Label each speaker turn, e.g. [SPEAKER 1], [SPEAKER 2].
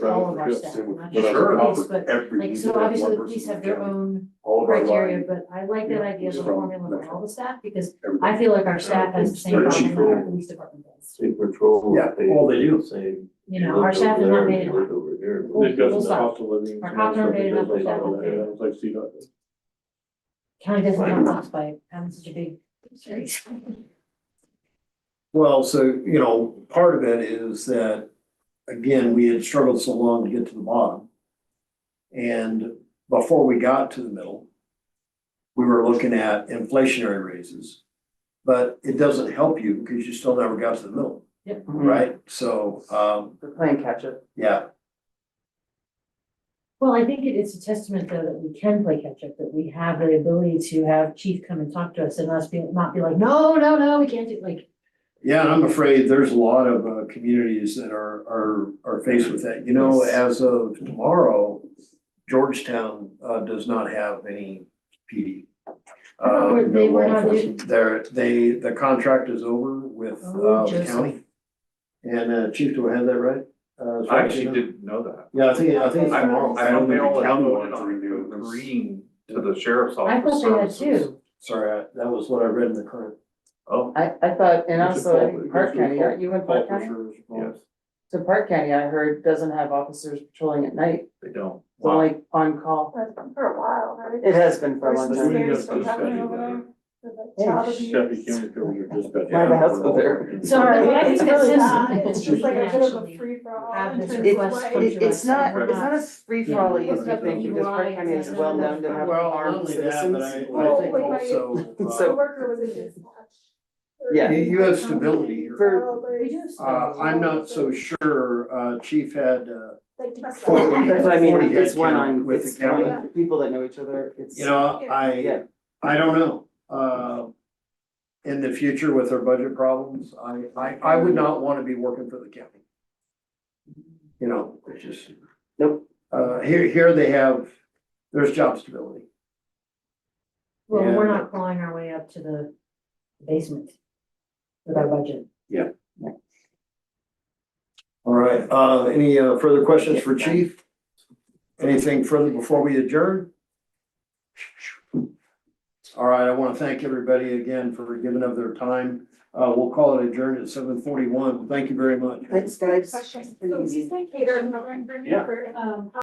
[SPEAKER 1] all of our
[SPEAKER 2] Right,
[SPEAKER 1] staff,
[SPEAKER 2] yeah,
[SPEAKER 1] not
[SPEAKER 2] but
[SPEAKER 1] just
[SPEAKER 2] I've offered
[SPEAKER 1] the police, but
[SPEAKER 2] every
[SPEAKER 1] like,
[SPEAKER 2] leader
[SPEAKER 1] so
[SPEAKER 2] that one
[SPEAKER 1] obviously the
[SPEAKER 2] person
[SPEAKER 1] police
[SPEAKER 2] in
[SPEAKER 1] have their
[SPEAKER 2] county,
[SPEAKER 1] own
[SPEAKER 2] all of our
[SPEAKER 1] criteria,
[SPEAKER 2] line,
[SPEAKER 1] but I like that idea of
[SPEAKER 2] He's
[SPEAKER 1] a
[SPEAKER 2] from
[SPEAKER 1] formula for
[SPEAKER 2] Metro.
[SPEAKER 1] all the staff, because I
[SPEAKER 2] everybody.
[SPEAKER 1] feel like our staff has the same
[SPEAKER 2] They're
[SPEAKER 1] problem that our
[SPEAKER 2] cheaper.
[SPEAKER 1] police department does.
[SPEAKER 3] State patrol.
[SPEAKER 2] Yeah,
[SPEAKER 3] they-
[SPEAKER 4] all they do.
[SPEAKER 3] Say.
[SPEAKER 1] You know, our staff is not made enough.
[SPEAKER 3] Over here.
[SPEAKER 4] They've got
[SPEAKER 1] Full
[SPEAKER 4] the
[SPEAKER 1] stop.
[SPEAKER 4] cost of living.
[SPEAKER 1] Our cops are made up of that whole thing.
[SPEAKER 4] It's like see that.
[SPEAKER 1] County doesn't count us by having such a big. series.
[SPEAKER 5] Well, so, you know, part of it is that, again, we had struggled so long to get to the bottom. And before we got to the middle, we were looking at inflationary raises. But it doesn't help you because you still never got to the middle,
[SPEAKER 2] Mm-hmm.
[SPEAKER 5] right? So, um,
[SPEAKER 6] We're playing catch up.
[SPEAKER 5] yeah,
[SPEAKER 1] Well, I think it- it's a testament though that we can play catch up, that we have the ability to have chief come and talk to us and us be, not be like, no, no, no, we can't do, like,
[SPEAKER 5] yeah, and I'm afraid there's a lot of uh communities that are are are faced with that. You know,
[SPEAKER 1] Yes.
[SPEAKER 5] as of tomorrow, Georgetown uh does not have any PD.
[SPEAKER 1] I thought we're-
[SPEAKER 5] Uh,
[SPEAKER 1] they were
[SPEAKER 2] no law
[SPEAKER 1] not,
[SPEAKER 2] enforcement.
[SPEAKER 5] They're, they, the contract is over with
[SPEAKER 1] Oh,
[SPEAKER 5] uh the
[SPEAKER 1] Joseph.
[SPEAKER 5] county. And uh Chief, do I have that right? Uh, as far
[SPEAKER 3] I
[SPEAKER 5] as you
[SPEAKER 3] actually
[SPEAKER 5] know?
[SPEAKER 3] didn't know that.
[SPEAKER 5] Yeah, I think, I think.
[SPEAKER 3] I don't, I don't think the county
[SPEAKER 2] wanted
[SPEAKER 3] wanted
[SPEAKER 2] to
[SPEAKER 3] to
[SPEAKER 2] renew this.
[SPEAKER 3] agreeing to the sheriff's
[SPEAKER 1] I
[SPEAKER 3] office
[SPEAKER 1] thought they had
[SPEAKER 3] services.
[SPEAKER 1] two.
[SPEAKER 5] Sorry, I- that was what I read in the current.
[SPEAKER 3] Oh,
[SPEAKER 6] I, I thought, and
[SPEAKER 2] It's a
[SPEAKER 6] also I
[SPEAKER 2] fault-
[SPEAKER 6] think
[SPEAKER 2] it's
[SPEAKER 6] Park
[SPEAKER 2] a
[SPEAKER 6] County,
[SPEAKER 2] fault-
[SPEAKER 6] aren't you in
[SPEAKER 2] fault
[SPEAKER 6] Park County?
[SPEAKER 2] reserve as well.
[SPEAKER 3] yes,
[SPEAKER 6] So Park County, I heard, doesn't have officers patrolling at night,
[SPEAKER 3] they don't.
[SPEAKER 6] it's only on call.
[SPEAKER 7] That's been for a while, right?
[SPEAKER 6] It has been for a long
[SPEAKER 7] There's
[SPEAKER 6] time.
[SPEAKER 7] some
[SPEAKER 3] time.
[SPEAKER 7] serious stuff
[SPEAKER 3] Just
[SPEAKER 7] happening
[SPEAKER 3] study
[SPEAKER 7] over there.
[SPEAKER 3] that.
[SPEAKER 7] with the
[SPEAKER 6] Yeah,
[SPEAKER 7] child
[SPEAKER 2] Chevy
[SPEAKER 7] abuse.
[SPEAKER 2] County Code or dispatch.
[SPEAKER 6] My house over there.
[SPEAKER 1] Sorry, but I think that's
[SPEAKER 7] It's
[SPEAKER 1] just-
[SPEAKER 7] really, it's just like a bit of a
[SPEAKER 1] Actually,
[SPEAKER 7] free for all.
[SPEAKER 1] have
[SPEAKER 7] in
[SPEAKER 1] this
[SPEAKER 7] terms of
[SPEAKER 1] request
[SPEAKER 7] like-
[SPEAKER 1] from-
[SPEAKER 6] It, it's not, it's not a free for all
[SPEAKER 1] Yeah.
[SPEAKER 6] easy thing, because Park County is well known to have
[SPEAKER 5] Well, not
[SPEAKER 6] armed
[SPEAKER 5] only that, but I,
[SPEAKER 6] citizens.
[SPEAKER 5] I think
[SPEAKER 7] Well, wait,
[SPEAKER 5] also.
[SPEAKER 7] My
[SPEAKER 5] uh,
[SPEAKER 7] coworker was in dispatch.
[SPEAKER 6] Yeah.
[SPEAKER 5] You, you have stability here.
[SPEAKER 7] Probably.
[SPEAKER 1] We do have
[SPEAKER 5] Uh, I'm not so sure, uh, Chief had, uh,
[SPEAKER 7] Like, trust
[SPEAKER 5] Well,
[SPEAKER 7] me.
[SPEAKER 6] That's what I mean,
[SPEAKER 5] 40
[SPEAKER 6] it's
[SPEAKER 5] head
[SPEAKER 6] one
[SPEAKER 5] count
[SPEAKER 6] on,
[SPEAKER 5] with the
[SPEAKER 6] it's one
[SPEAKER 7] county.
[SPEAKER 6] on people that know each other, it's.
[SPEAKER 5] you know,
[SPEAKER 6] Yeah.
[SPEAKER 5] I, I don't know. Uh, in the future with our budget problems, I, I, I would not want to be working for the county. You know, it's just.
[SPEAKER 6] Nope.
[SPEAKER 5] Uh, here, here they have, there's job stability.
[SPEAKER 1] Well, we're
[SPEAKER 5] Yeah.
[SPEAKER 1] not clawing our way up to the basement with our budget.
[SPEAKER 5] All right, uh, any uh, further questions for Chief? Anything further before we adjourn? All right, I want to thank everybody again for giving up their time. Uh, we'll call it adjourned at seven forty-one. Thank you very much.
[SPEAKER 6] Thanks, guys.
[SPEAKER 7] Question. So is this like catered and for, um,